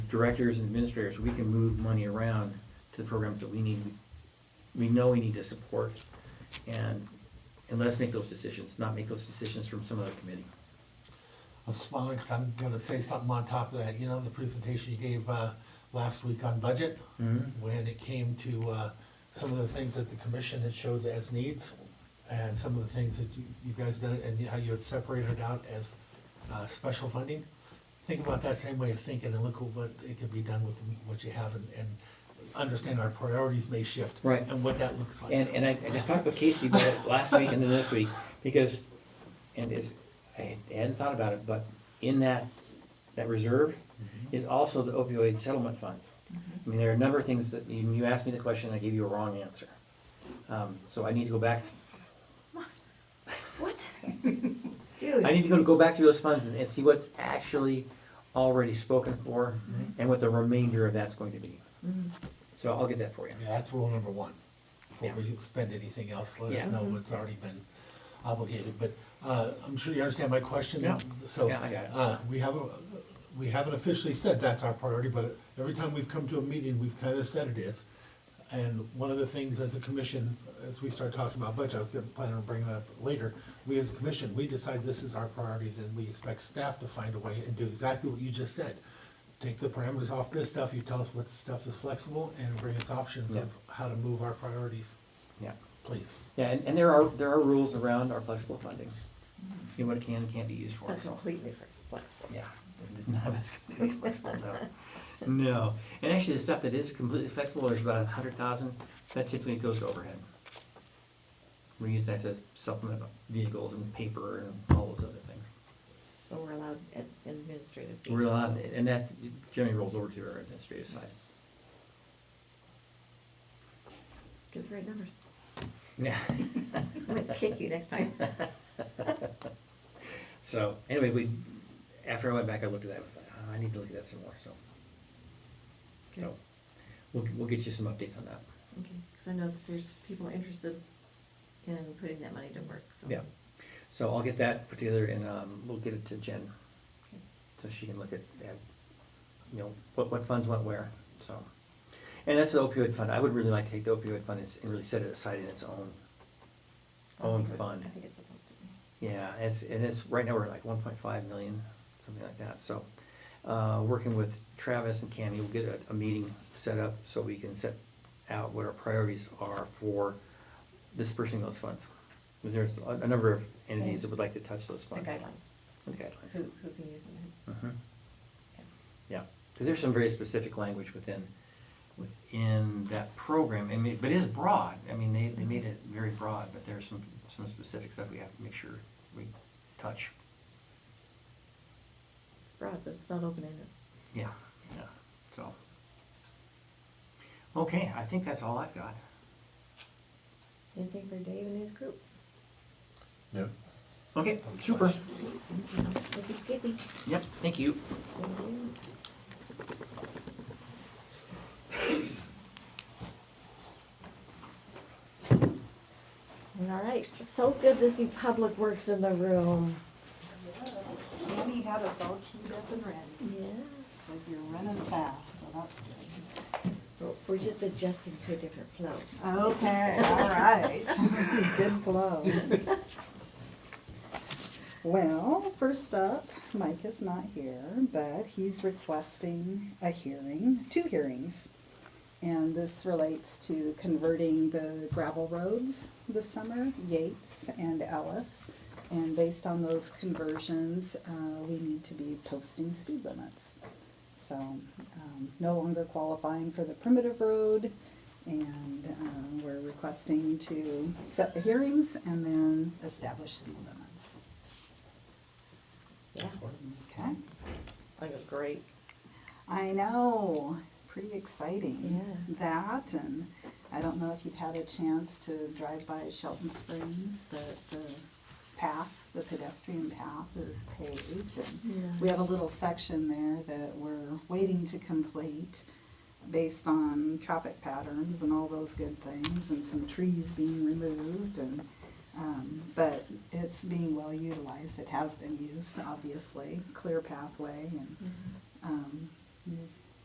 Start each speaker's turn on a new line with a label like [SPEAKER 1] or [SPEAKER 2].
[SPEAKER 1] directors and administrators, we can move money around to the programs that we need, we know we need to support. And, and let us make those decisions, not make those decisions from some other committee.
[SPEAKER 2] I'm smiling because I'm gonna say something on top of that. You know, the presentation you gave, uh, last week on budget,
[SPEAKER 1] Mm-hmm.
[SPEAKER 2] when it came to, uh, some of the things that the commission had showed as needs and some of the things that you, you guys did and how you had separated out as, uh, special funding. Think about that same way of thinking and look at what it could be done with what you have and, and understand our priorities may shift.
[SPEAKER 1] Right.
[SPEAKER 2] And what that looks like.
[SPEAKER 1] And, and I, and I talked with Casey about it last week and then this week, because, and it's, I hadn't thought about it, but in that, that reserve is also the opioid settlement funds. I mean, there are a number of things that, you, you asked me the question, I gave you a wrong answer. Um, so I need to go back,
[SPEAKER 3] What?
[SPEAKER 1] I
[SPEAKER 3] Dude,
[SPEAKER 1] need to go, go back through those funds and, and see what's actually already spoken for and what the remainder of that's going to be. So I'll get that for you.
[SPEAKER 2] Yeah, that's rule number one. Before
[SPEAKER 1] Yeah.
[SPEAKER 2] we spend anything else, let us
[SPEAKER 1] Yeah.
[SPEAKER 2] know what's already been obligated, but, uh, I'm sure you understand my question.
[SPEAKER 1] Yeah.
[SPEAKER 2] So,
[SPEAKER 1] Yeah, I got it.
[SPEAKER 2] uh, we haven't, we haven't officially said that's our priority, but every time we've come to a meeting, we've kind of said it is. And one of the things as a commission, as we start talking about budget, I was gonna plan on bringing that up later, we as a commission, we decide this is our priorities and we expect staff to find a way and do exactly what you just said. Take the parameters off this stuff, you tell us what stuff is flexible and bring us options of how to move our priorities,
[SPEAKER 1] Yeah.
[SPEAKER 2] please.
[SPEAKER 1] Yeah, and, and there are, there are rules around our flexible funding. You know, what it can and can't be used for,
[SPEAKER 4] It's
[SPEAKER 1] so,
[SPEAKER 4] completely fr- flexible.
[SPEAKER 1] yeah. It's none of it's completely flexible, no. No, and actually the stuff that is completely flexible, there's about a hundred thousand, that typically goes to overhead. We use that to supplement vehicles and paper and all those other things.
[SPEAKER 4] But we're allowed ad- administrative fees.
[SPEAKER 1] We're allowed, and that generally rolls over to our administrative side.
[SPEAKER 4] Good for numbers.
[SPEAKER 1] Yeah.
[SPEAKER 4] I'm gonna kick you next time.
[SPEAKER 1] So, anyway, we, after I went back, I looked at that, I was like, oh, I need to look at that some more, so.
[SPEAKER 4] Okay.
[SPEAKER 1] So, we'll, we'll get you some updates on that.
[SPEAKER 4] Okay, because I know that there's people interested in putting that money to work, so.
[SPEAKER 1] Yeah. So I'll get that put together and, um, we'll get it to Jen.
[SPEAKER 4] Okay.
[SPEAKER 1] So she can look at, at, you know, what, what funds went where, so. And that's the opioid fund. I would really like to take the opioid fund and s- and really set it aside in its own,
[SPEAKER 4] I
[SPEAKER 1] own
[SPEAKER 4] think it-
[SPEAKER 1] fund.
[SPEAKER 4] I think it's supposed to be.
[SPEAKER 1] Yeah, it's, and it's, right now we're like one point five million, something like that, so. Uh, working with Travis and Cami, we'll get a, a meeting set up so we can set out what our priorities are for dispersing those funds. 'Cause there's a, a number of entities that would like to touch those
[SPEAKER 4] The
[SPEAKER 1] funds.
[SPEAKER 4] guidelines,
[SPEAKER 1] The guidelines.
[SPEAKER 4] who, who can use it.
[SPEAKER 1] Mhm. Yeah, because there's some very specific language within, within that program, I mean, but it is broad, I mean, they, they made it very broad, but there's some, some specific stuff we have to make sure we touch.
[SPEAKER 4] It's broad, but it's not open-ended.
[SPEAKER 1] Yeah, yeah, so. Okay, I think that's all I've got.
[SPEAKER 4] Anything for Dave and his group?
[SPEAKER 1] Okay, super.
[SPEAKER 4] Thank you, Skippy.
[SPEAKER 1] Yep, thank you.
[SPEAKER 4] Thank you. All right, so good to see Public Works in the room.
[SPEAKER 5] Yes, Tammy had us all keyed up and ready.
[SPEAKER 4] Yeah.
[SPEAKER 5] It's like you're running fast, so that's good.
[SPEAKER 4] Oh, We're just adjusting to a different flow.
[SPEAKER 5] Okay, all right. Good flow. Well, first up, Mike is not here, but he's requesting a hearing, two hearings. And this relates to converting the gravel roads this summer, Yates and Ellis. And based on those conversions, uh, we need to be posting speed limits. So, um, no longer qualifying for the primitive road. And, um, we're requesting to set the hearings and then establish speed limits.
[SPEAKER 4] Yeah,
[SPEAKER 5] Okay,
[SPEAKER 4] that was great.
[SPEAKER 5] I know, pretty exciting.
[SPEAKER 4] Yeah.
[SPEAKER 5] That, and I don't know if you've had a chance to drive by Shelton Springs, but the path, the pedestrian path is paved and We have a little section there that we're waiting to complete based on traffic patterns and all those good things and some trees being removed and, um, but it's being well
[SPEAKER 4] Mm-hmm.
[SPEAKER 5] utilized. It has been used, obviously, clear pathway and, um,